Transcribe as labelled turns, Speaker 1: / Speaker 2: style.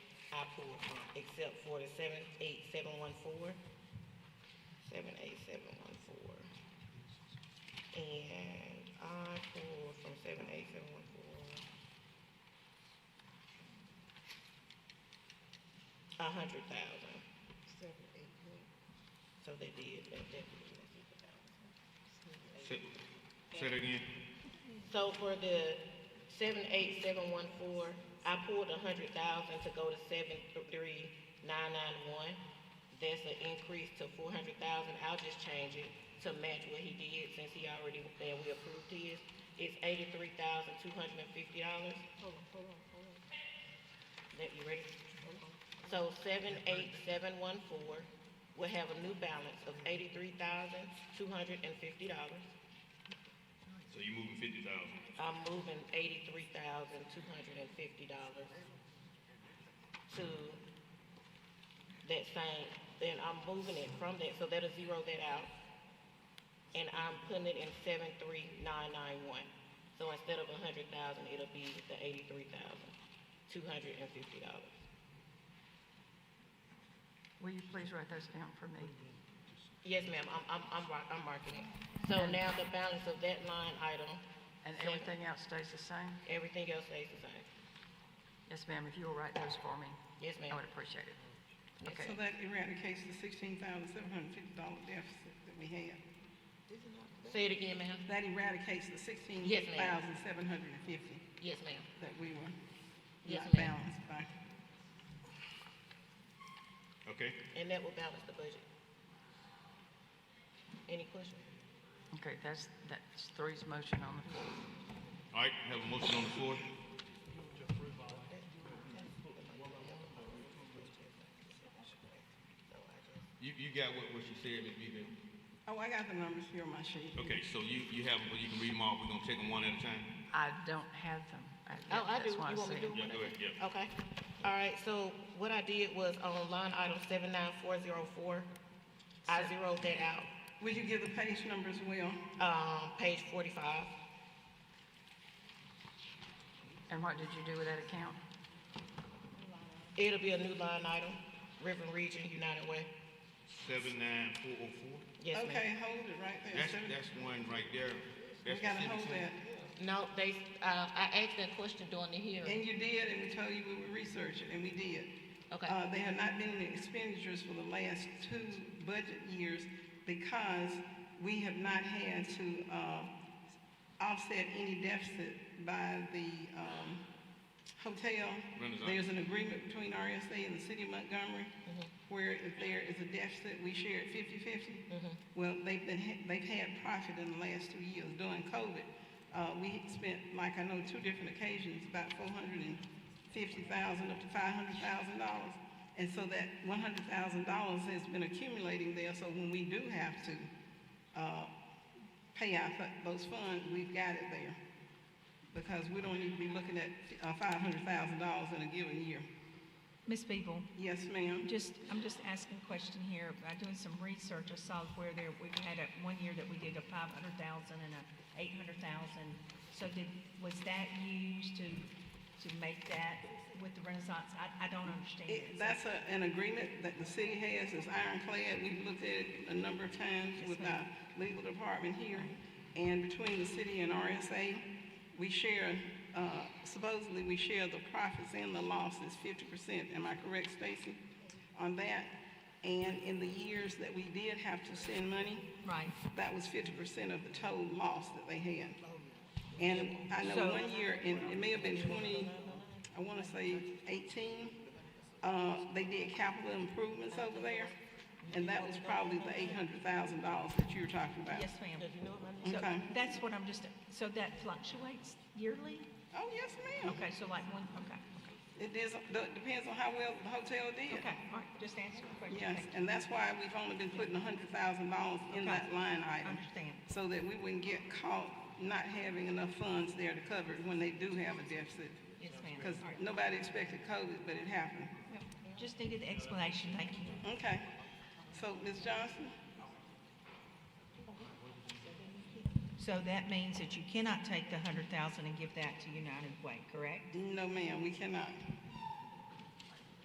Speaker 1: I pulled from, except for the seven, eight, seven, one, four. Seven, eight, seven, one, four. And I pulled from seven, eight, seven, one, four. A hundred thousand,
Speaker 2: Seven, eight, nine,
Speaker 1: so they did, that definitely left it out.
Speaker 3: Say say that again.
Speaker 1: So for the seven eight seven one four, I pulled a hundred thousand to go to seven three nine nine one. That's an increase to four hundred thousand, I'll just change it to match what he did since he already said we approved his. It's eighty-three thousand two hundred and fifty dollars,
Speaker 2: hold on, hold on, hold on,
Speaker 1: that, you ready?
Speaker 2: hold on.
Speaker 1: So seven eight seven one four will have a new balance of eighty-three thousand two hundred and fifty dollars.
Speaker 3: So you moving fifty thousand.
Speaker 1: I'm moving eighty-three thousand, two hundred and fifty dollars to that same, then I'm moving it from that, so that'll zero that out. And I'm putting it in seven, three, nine, nine, one. So instead of a hundred thousand, it'll be the eighty-three thousand, two hundred and fifty dollars.
Speaker 4: Will you please write those down for me?
Speaker 1: Yes, ma'am, I'm, I'm, I'm, mar- I'm marking it. So now the balance of that line item,
Speaker 4: And
Speaker 1: Sure.
Speaker 4: everything else stays the same?
Speaker 1: everything else stays the same.
Speaker 4: Yes, ma'am, if you will write those for me,
Speaker 1: Yes,
Speaker 4: I
Speaker 1: ma'am.
Speaker 4: would appreciate it.
Speaker 1: Yes.
Speaker 4: Okay,
Speaker 5: So that eradicates the sixteen thousand seven hundred fifty dollar deficit that we had.
Speaker 1: Say it again, ma'am.
Speaker 5: That eradicates the sixteen
Speaker 1: Yes, ma'am.
Speaker 5: thousand seven hundred and fifty
Speaker 1: Yes, ma'am.
Speaker 5: that we were
Speaker 1: Yes,
Speaker 5: not
Speaker 1: ma'am.
Speaker 5: balanced by.
Speaker 3: Okay,
Speaker 1: And that will balance the budget. Any questions?
Speaker 4: okay, that's, that's three's motion on the floor.
Speaker 3: all right, have a motion on the floor. You, you got what, what she said, Ms. Beaver?
Speaker 5: Oh, I got the numbers here on my sheet.
Speaker 3: Okay, so you, you have, well, you can read them all, we're gonna take them one at a time?
Speaker 4: I don't have them. I-
Speaker 1: Oh, I do.
Speaker 4: that's
Speaker 1: You
Speaker 4: why
Speaker 1: want me
Speaker 4: said-
Speaker 1: to do it?
Speaker 3: Yeah, go ahead, yeah.
Speaker 1: Okay. All right, so what I did was on line item seven nine four zero four, I zeroed that out,
Speaker 5: Would you give the page number as well?
Speaker 1: um, page forty-five.
Speaker 4: And what did you do with that account?
Speaker 1: It'll be a new line item, River Region United Way.
Speaker 3: Seven nine four oh four?
Speaker 1: Yes, ma'am.
Speaker 5: Okay, hold it right there.
Speaker 3: That's,
Speaker 5: Seven-
Speaker 3: that's one right there.
Speaker 5: We
Speaker 3: That's the
Speaker 5: gotta hold
Speaker 3: citizen.
Speaker 5: that.
Speaker 1: No, they, uh, I asked that question during the hearing.
Speaker 5: And you did, and we told you we would research it, and we did.
Speaker 1: Okay.
Speaker 5: Uh, there have not been any expenditures for the last two budget years because we have not had to, uh, offset any deficit by the, um, hotel.
Speaker 3: Renaissance.
Speaker 5: There's an agreement between RSA and the city of Montgomery where if there is a deficit, we share it fifty-fifty. Well, they've been, ha- they've had profit in the last two years during COVID. Uh, we spent, like I know, two different occasions, about four hundred and fifty thousand up to five hundred thousand dollars. And so that one hundred thousand dollars has been accumulating there, so when we do have to, uh, pay out th- those funds, we've got it there. Because we don't need to be looking at, uh, five hundred thousand dollars in a given year.
Speaker 6: Ms. Beeble,
Speaker 5: Yes, ma'am?
Speaker 6: just, I'm just asking a question here. By doing some research, I saw where there, we had a, one year that we did a five hundred thousand and a eight hundred thousand. So did, was that used to, to make that with the Renaissance? I, I don't understand.
Speaker 5: It,
Speaker 6: it.
Speaker 5: that's a, an agreement that the city has, it's ironclad, we've looked at it a number of times with our legal department here. And between the city and RSA, we share, uh, supposedly we share the profits and the losses fifty percent, am I correct, Stacy? On that, and in the years that we did have to send money,
Speaker 6: Right.
Speaker 5: that was fifty percent of the total loss that they had. And I know one year, in it may have been twenty, I wanna say eighteen, uh, they did capital improvements over there, and that was probably the eight hundred thousand dollars that you were talking about.
Speaker 6: Yes, ma'am. So
Speaker 5: Okay.
Speaker 6: that's what I'm just, so that fluctuates yearly?
Speaker 5: Oh, yes, ma'am.
Speaker 6: Okay, so like one, okay, okay,
Speaker 5: It is, it depends on how well the hotel did.
Speaker 6: okay, all right, just answer the question.
Speaker 5: Yes,
Speaker 6: Thank you.
Speaker 5: and that's why we've only been putting hundred thousand dollars in that line
Speaker 6: I
Speaker 5: item.
Speaker 6: understand.
Speaker 5: so that we wouldn't get caught not having enough funds there to cover it when they do have a deficit.
Speaker 6: Yes, ma'am.
Speaker 5: Because
Speaker 6: All right.
Speaker 5: nobody expected COVID, but it happened.
Speaker 6: Yep. Just needed the explanation, thank you.
Speaker 5: Okay. So, Ms. Johnson?
Speaker 6: So that means that you cannot take the hundred thousand and give that to United Way, correct?
Speaker 5: No, ma'am, we cannot.